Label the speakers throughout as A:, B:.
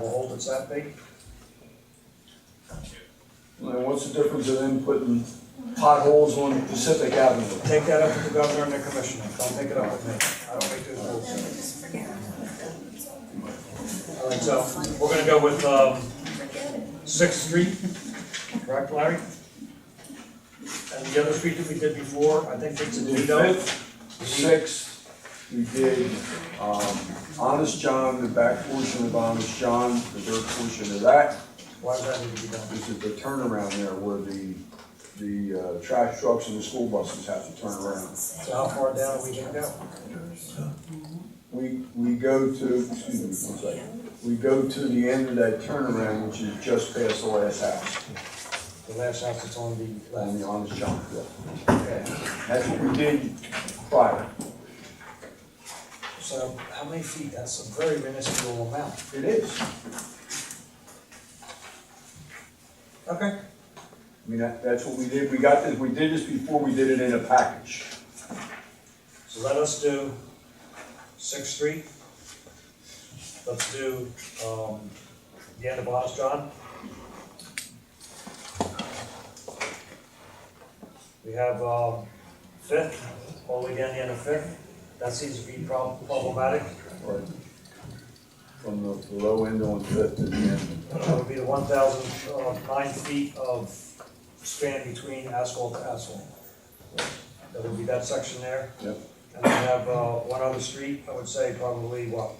A: difference that big?
B: And what's the difference of them putting potholes on Pacific Avenue?
A: Take that up with the governor and the commissioner, don't take it up with me, I don't make those rules.
C: Just forget
A: All right, so, we're gonna go with, um, Sixth Street, correct, Larry? And the other street that we did before, I think it's
B: We
A: a
B: did
A: Lido,
B: Fifth, Sixth, we did, um, Honest John, the back portion of Honest John, the dirt portion of that.
A: why does that need to be done?
B: This is the turnaround there where the, the, uh, trash trucks and the school buses have to turn around.
A: So how far down are we gonna go?
B: We, we go to, excuse me, one second, we go to the end of that turnaround, which is just past the last house,
A: The last house that's on the
B: on
A: left,
B: the Honest John. yeah.
A: okay.
B: That's what we did prior.
A: So how many feet, that's a very minuscule amount.
B: It is.
A: Okay.
B: I mean, that, that's what we did, we got this, we did this before, we did it in a package.
A: So let us do Sixth Street. Let's do, um, the end of Honest John. We have, um, Fifth, all the way down the end of Fifth. That seems to be prob- problematic.
B: Right. From the the low end on to to the end.
A: That would be the one thousand, uh, nine feet of span between asphalt to asphalt. That would be that section there.
B: Yep.
A: And we have, uh, one other street, I would say probably what,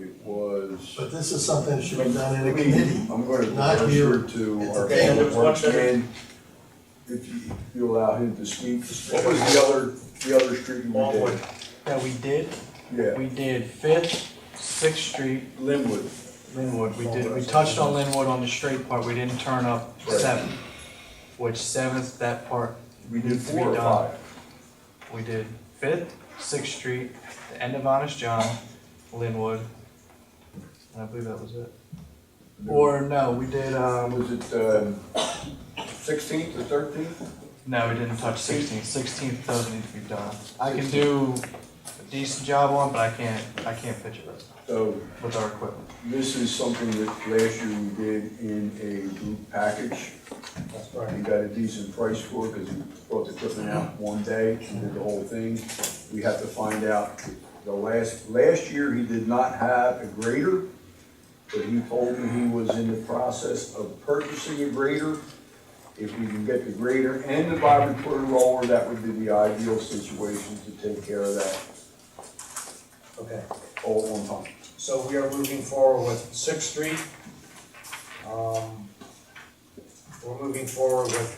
B: It was.
D: But this is something that should be done in a committee.
B: I'm going to
D: Not
B: refer
D: you.
B: to
D: It's
B: our
D: okay.
B: public works man, if you, if you allow him to speak. What was the other, the other street we
A: Longwood.
B: did?
E: that we did,
B: Yeah,
E: we did Fifth, Sixth Street,
B: Linwood.
E: Linwood, we did, we touched on Linwood on the straight part, we didn't turn up
B: Right.
E: Seventh. Which Seventh, that part,
B: We did
E: Needs to be
B: four or
E: done.
B: five.
E: we did Fifth, Sixth Street, the end of Honest John, Linwood. And I believe that was it. Or no, we did,
B: Um,
E: um,
B: Was it, um, sixteenth or thirteenth?
E: no, we didn't touch Sixteenth, Sixteenth doesn't need to be done. I can do a decent job on, it, but I can't, I can't pitch it
B: So
E: with our equipment.
B: This is something that last year we did in a group package.
A: that's right.
B: We got a decent price for it because we brought the equipment out one day and did the whole thing. We have to find out, the last, last year he did not have a grader, but he told me he was in the process of purchasing a grader. If we can get the grader and the vibratory roller, that would be the ideal situation to take care of that
A: Okay,
B: all at one time.
A: so we are moving forward with Sixth Street. Um, We're moving forward with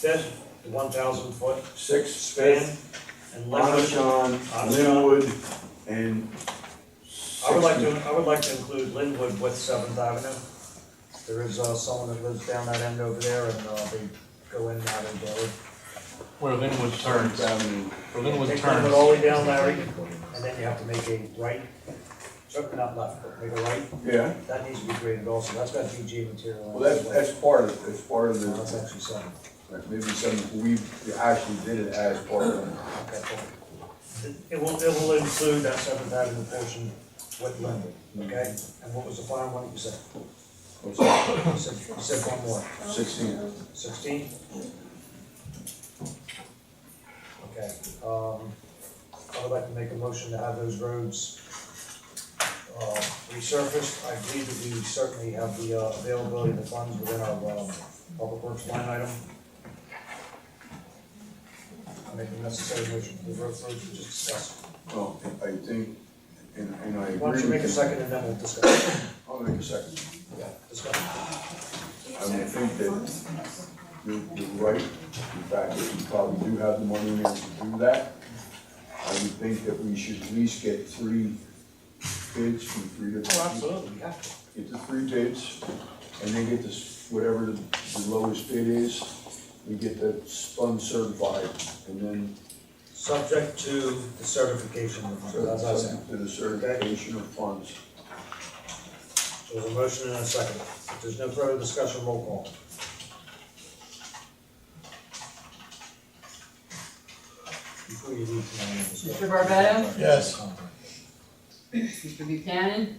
A: Fifth, the one thousand foot
B: Six, fifth,
A: span and
B: Lana
A: Linwood.
B: John,
A: Lana John.
B: Linwood, and.
A: I would like to, I would like to include Linwood with Seventh Avenue. There is uh, someone that lives down that end over there and uh, they go in and out and go.
E: Where Linwood turns,
B: Avenue.
E: where Linwood
A: Take Linwood
E: turns,
A: all the way down, Larry, and then you have to make a right, certainly not left, but make a right.
B: Yeah,
A: That needs to be graded also, that's got BG material. on it.
B: well, that's, that's part of, that's part of
A: That's
B: the,
A: actually seven.
B: like, maybe some, we actually did it as part of it.
A: Okay, cool. It- It will, it will include that Seventh Avenue portion with Linwood, okay? And what was the final one that you said?
B: What's that,
A: You said, you said one more,
B: sixteen?
A: sixteen? Okay, um, I would like to make a motion to have those roads, uh, resurfaced. I believe that we certainly have the uh, availability of the funds within our, um, public works line item. I make the necessary motion for the road roads we just discussed.
B: Well, I think, and, and I agree.
A: Why don't you
B: with
A: make a second and then we'll discuss.
B: I'll make a second.
A: Yeah, discuss.
B: I would think that you're, you're right, in fact, that we probably do have the money in there to do that. I would think that we should at least get three bids from three different people.
A: Oh, absolutely, we have to.
B: get the three bids, and then get this, whatever the the lowest bid is, we get that spun certified, and then
A: Subject to the certification of the funds, as I said.
B: to the certification of funds.
A: There's a motion and a second. If there's no further discussion, roll call. Before you leave, can I have a discussion?
F: Mr. Barbato?
D: Yes.
F: Mr. Buchanan?